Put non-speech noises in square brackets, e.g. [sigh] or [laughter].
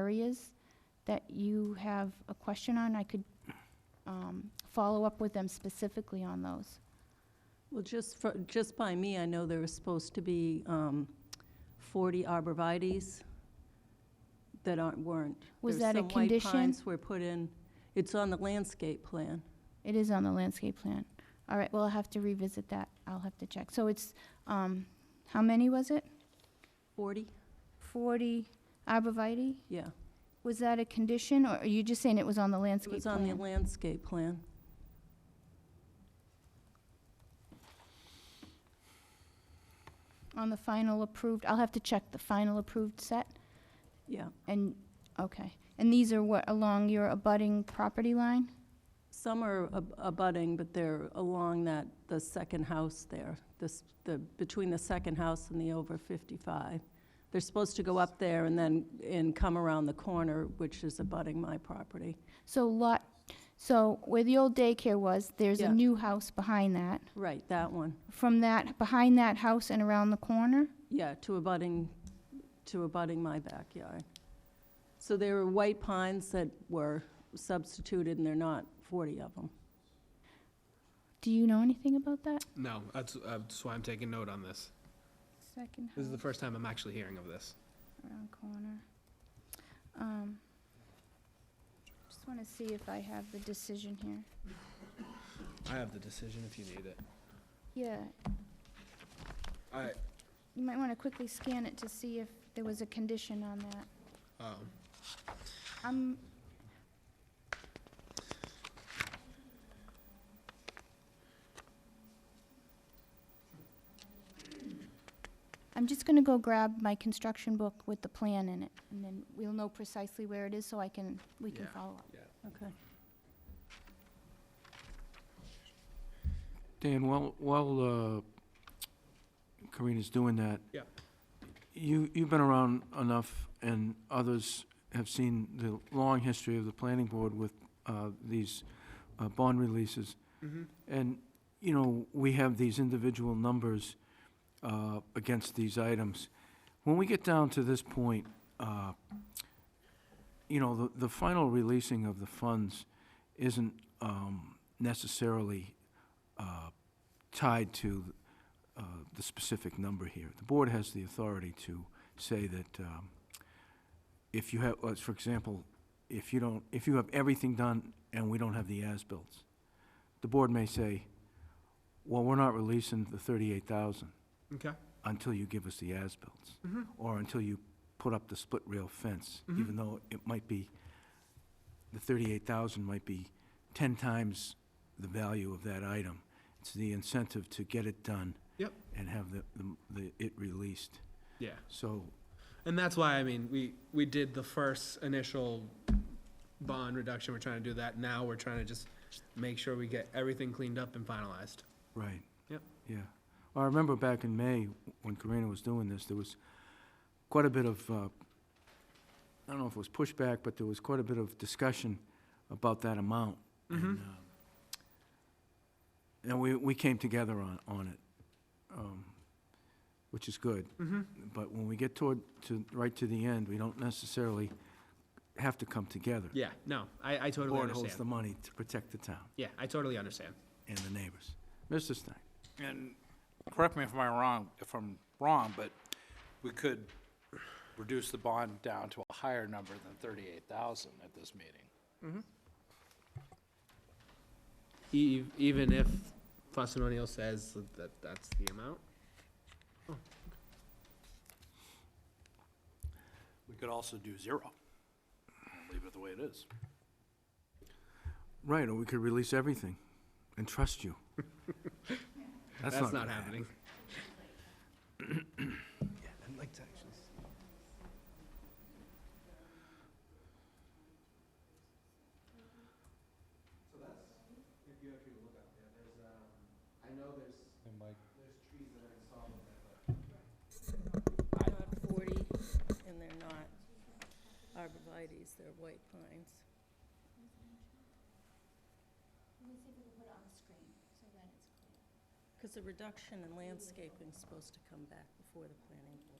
areas that you have a question on, I could um, follow up with them specifically on those. Well, just for, just by me, I know there was supposed to be um, 40 arborvitae's that aren't, weren't. Was There's that a condition? Some white pines were put in. It's on the landscape plan. It is on the landscape plan. All right, well, I'll have to revisit that. I'll have to check. So it's, um, how many was it? 40? 40 arborvitae? Yeah. Was that a condition, or are you just saying it was on the It landscape was on the plan? landscape plan. On the final approved, I'll have to check the final approved set, Yeah. and, okay. And these are what, along your abutting property line? Some are ab- abutting, but they're along that, the second house there, this, the, between the second house and the over 55. They're supposed to go up there and then, and come around the corner, which is abutting my property. So lot, so where the old daycare was, there's a Yeah. new house behind that. Right, that one. From that, behind that house and around the corner? Yeah, to abutting, to abutting my backyard. So there were white pines that were substituted, and they're not 40 of them. Do you know anything about that? No, that's, uh, that's why I'm taking note on this. Second This is the house first time I'm actually hearing of this. around corner. Um, Just want to see if I have the decision here. I have the decision if you need it. Yeah, I, you might want to quickly scan it to see if there was a condition on that. um, Um, I'm just gonna go grab my construction book with the plan in it, and then we'll know precisely where it is, so I can, we can Yeah. follow up. Okay. Dan, while, while uh, Karina's doing that. Yeah. You, you've been around enough, and others have seen the long history of the planning board with uh, these uh, bond releases. mhm. And, you know, we have these individual numbers uh, against these items. When we get down to this point, uh, you know, the, the final releasing of the funds isn't um, necessarily uh, tied to uh, the specific number here. The board has the authority to say that um, if you have, let's- for example, if you don't, if you have everything done and we don't have the as-bills, the board may say, well, we're not releasing the thirty-eight thousand Okay, until you give us the as-bills, Mhm. or until you put up the split rail fence, Mhm. even though it might be, the thirty-eight thousand might be ten times the value of that item. It's the incentive to get it done. Yep. And have the, the- the, it released. yeah. So, And that's why, I mean, we, we did the first initial bond reduction, we're trying to do that, now we're trying to just make sure we get everything cleaned up and finalized. Right. Yep. Yeah. I remember back in May, when Karina was doing this, there was quite a bit of, uh, I don't know if it was pushback, but there was quite a bit of discussion about that amount. Mhm. And, um, And we, we came together on, on it, um, which is good. Mm-hmm. But when we get toward, to, right to the end, we don't necessarily have to come together. Yeah, no, I, I The totally board holds the understand. money to protect the town Yeah, I totally understand. and the neighbors. Mr. Stein? And correct me if I'm wrong, if I'm wrong, but we could reduce the bond down to a higher number than thirty-eight thousand at this meeting. E- even if Fussin' O'Neill says that that's the amount? We could also do zero. and Leave it the way it is. Right, or we could release everything and [laughs] trust you. That's not gonna happen. happening. Yeah, I'd like to actually. So that's, if you actually look up there, there's, um, I know there's, there's trees that I saw over there, but. Not 40, and they're not arborvitae's, they're white pines. Let me see if we can put it on the screen so that it's clear. Because the reduction in landscaping is supposed to come back before the planning board.